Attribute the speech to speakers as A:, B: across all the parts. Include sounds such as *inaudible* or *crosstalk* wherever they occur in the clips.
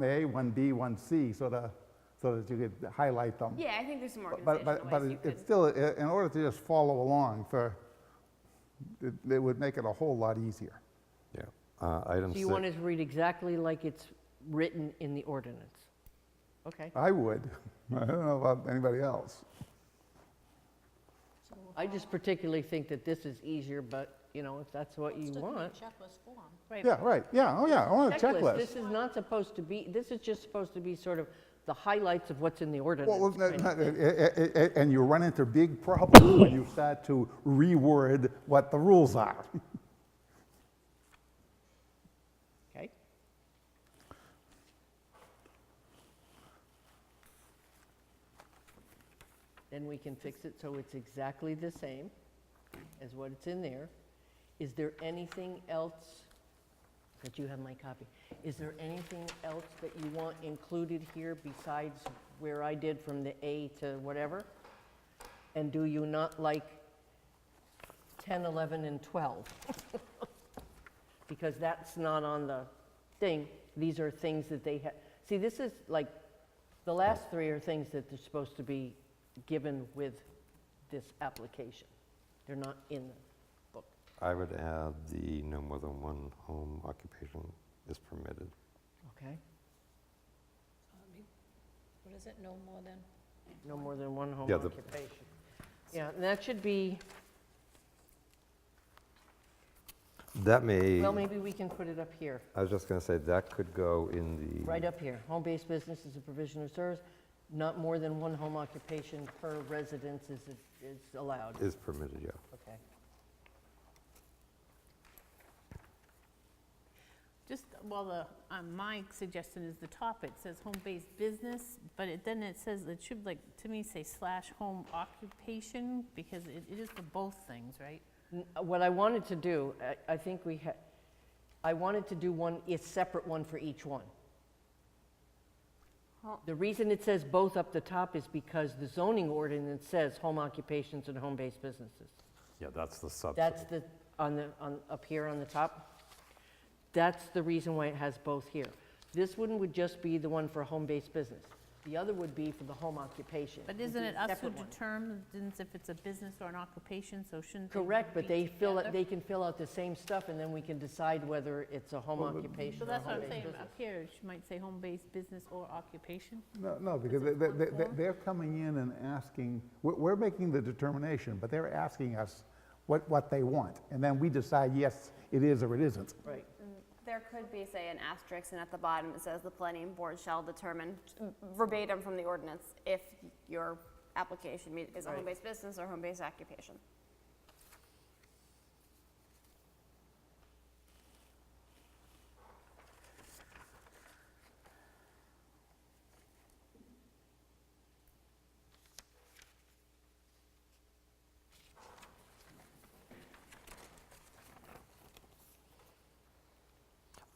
A: 1A, 1B, 1C, so the, so that you could highlight them.
B: Yeah, I think there's some more
A: But,
B: organizational
A: but, but
B: ways you
A: it-
B: could.
A: it's still, i- in order to just follow along for, it, it would make it a whole lot easier.
C: Yeah. Uh, Item
D: Do
C: six.
D: you want it to read exactly like it's written in the ordinance? Okay.
A: I would. *laughs* I don't know about anybody else.
D: I just particularly think that this is easier, but, you know, if that's what you want.
E: Checklist form.
A: Yeah, right, yeah, oh yeah, I want a
D: This
A: checklist.
D: is not supposed to be, this is just supposed to be sort of the highlights of what's in the
A: Well, well,
D: ordinance.
A: no,
D: kind
A: no,
D: of thing.
A: a- a- a- And you run into big problems when you start to reword what the rules are.
D: Okay. Then we can fix it so it's exactly the same as what it's in there. Is there anything else, that you have my copy, is there anything else that you want included here besides where I did from the A to whatever? And do you not like 10, 11, and 12? because that's not on the thing. These are things that they have, see, this is like, the last three are things that they're supposed to be given with this application. They're not in the book.
C: I would add the no more than one home occupation is permitted.
D: Okay.
E: What is it, no more than?
D: No more than one home
C: Yeah, the-
D: occupation. Yeah, and that should be,
C: That may,
D: well, maybe we can put it up here,
C: I was just going to say, that could go in the.
D: right up here. Home-based business is a provision of service, not more than one home occupation per residence is, is allowed.
C: Is permitted, yeah.
D: Okay.
F: Just, well, the, um, my suggestion is the top, it says home-based business, but it, then it says, it should like, to me, say slash home occupation, because it, it is for both things, right?
D: N- What I wanted to do, I, I think we had, I wanted to do one, a separate one for each one.
F: Huh.
D: The reason it says both up the top is because the zoning ordinance says home occupations and home-based businesses.
C: Yeah, that's the subset.
D: That's the, on the, on, up here on the top. That's the reason why it has both here. This one would just be the one for home-based business. The other would be for the home occupation.
F: But
D: It'd
F: isn't
D: be a
F: it us who
D: separate one.
F: determines if it's a business or an occupation, so shouldn't they
D: Correct, but
F: be
D: they fill, it.
F: together?
D: they can fill out the same stuff, and then we can decide whether it's a home occupation
F: So
D: or a
F: that's what I'm
D: home-based
F: saying, up
D: business.
F: here, it might say home-based business or occupation.
A: No, no, because they, they, they- they're coming in and asking, we're, we're making the determination, but they're asking us what, what they want. And then we decide, yes, it is or it isn't.
D: Right.
B: There could be, say, an asterisk, and at the bottom it says the planning board shall determine verbatim from the ordinance if your application meet- is a
D: Right.
B: home-based business or home-based occupation.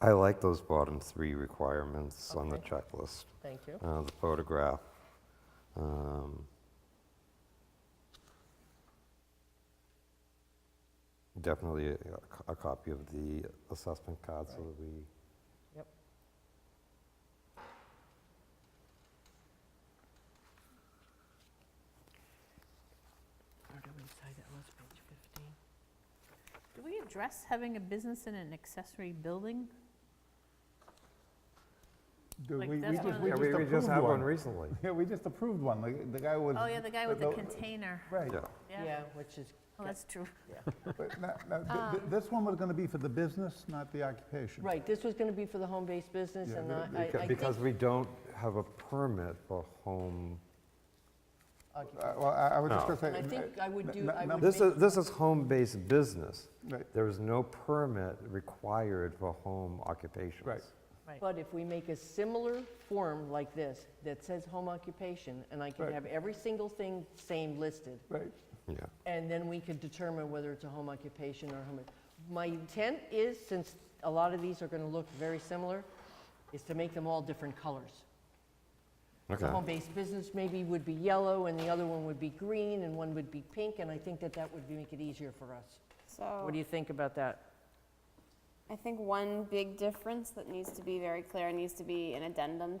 C: I like those bottom three requirements on the
D: Okay.
C: checklist.
D: Thank you.
C: Uh, The photograph. um, Definitely a co- a copy of the assessment card so that we.
D: Yep. Or do we decide that was page 15?
F: Do we address having a business in an accessory building?
A: Do
F: Like,
A: we- we
F: that's
A: just-
F: one of
A: we
F: the-
A: just approved
C: recently.
A: *laughs* Yeah, we just approved one, the, the guy was.
F: Oh, yeah, the guy with the
A: no,
F: container,
A: Right,
C: Yeah,
D: Yeah, which is,
F: Oh, that's true.
A: but no- no, th-
F: Uh.
A: th- this one was gonna be for the business, not the occupation.
D: right, this was going to be for the home-based business,
A: Yeah,
D: and
A: but
D: I-
A: it-
D: I, I
C: Beca-
D: think
C: because we don't have a permit for home.
A: Uh, Well, I I was just
C: No.
A: gonna say.
D: I think I would
A: n- n-
D: do- I
A: num-
D: would-
C: This is, this is home-based business.
A: Right.
C: There is no permit required for home occupations.
A: Right.
D: But if we make a similar form like this that says home occupation, and I
A: Right.
D: can have every single thing same listed,
A: Right,
C: Yeah,
D: and then we could determine whether it's a home occupation or home. My intent is, since a lot of these are going to look very similar, is to make them all different colors. The
C: okay.
D: home-based business maybe would be yellow, and the other one would be green, and one would be pink, and I think that that would be- make it easier for us.
B: So.
D: What do you think about that?
B: I think one big difference that needs to be very clear, needs to be an addendum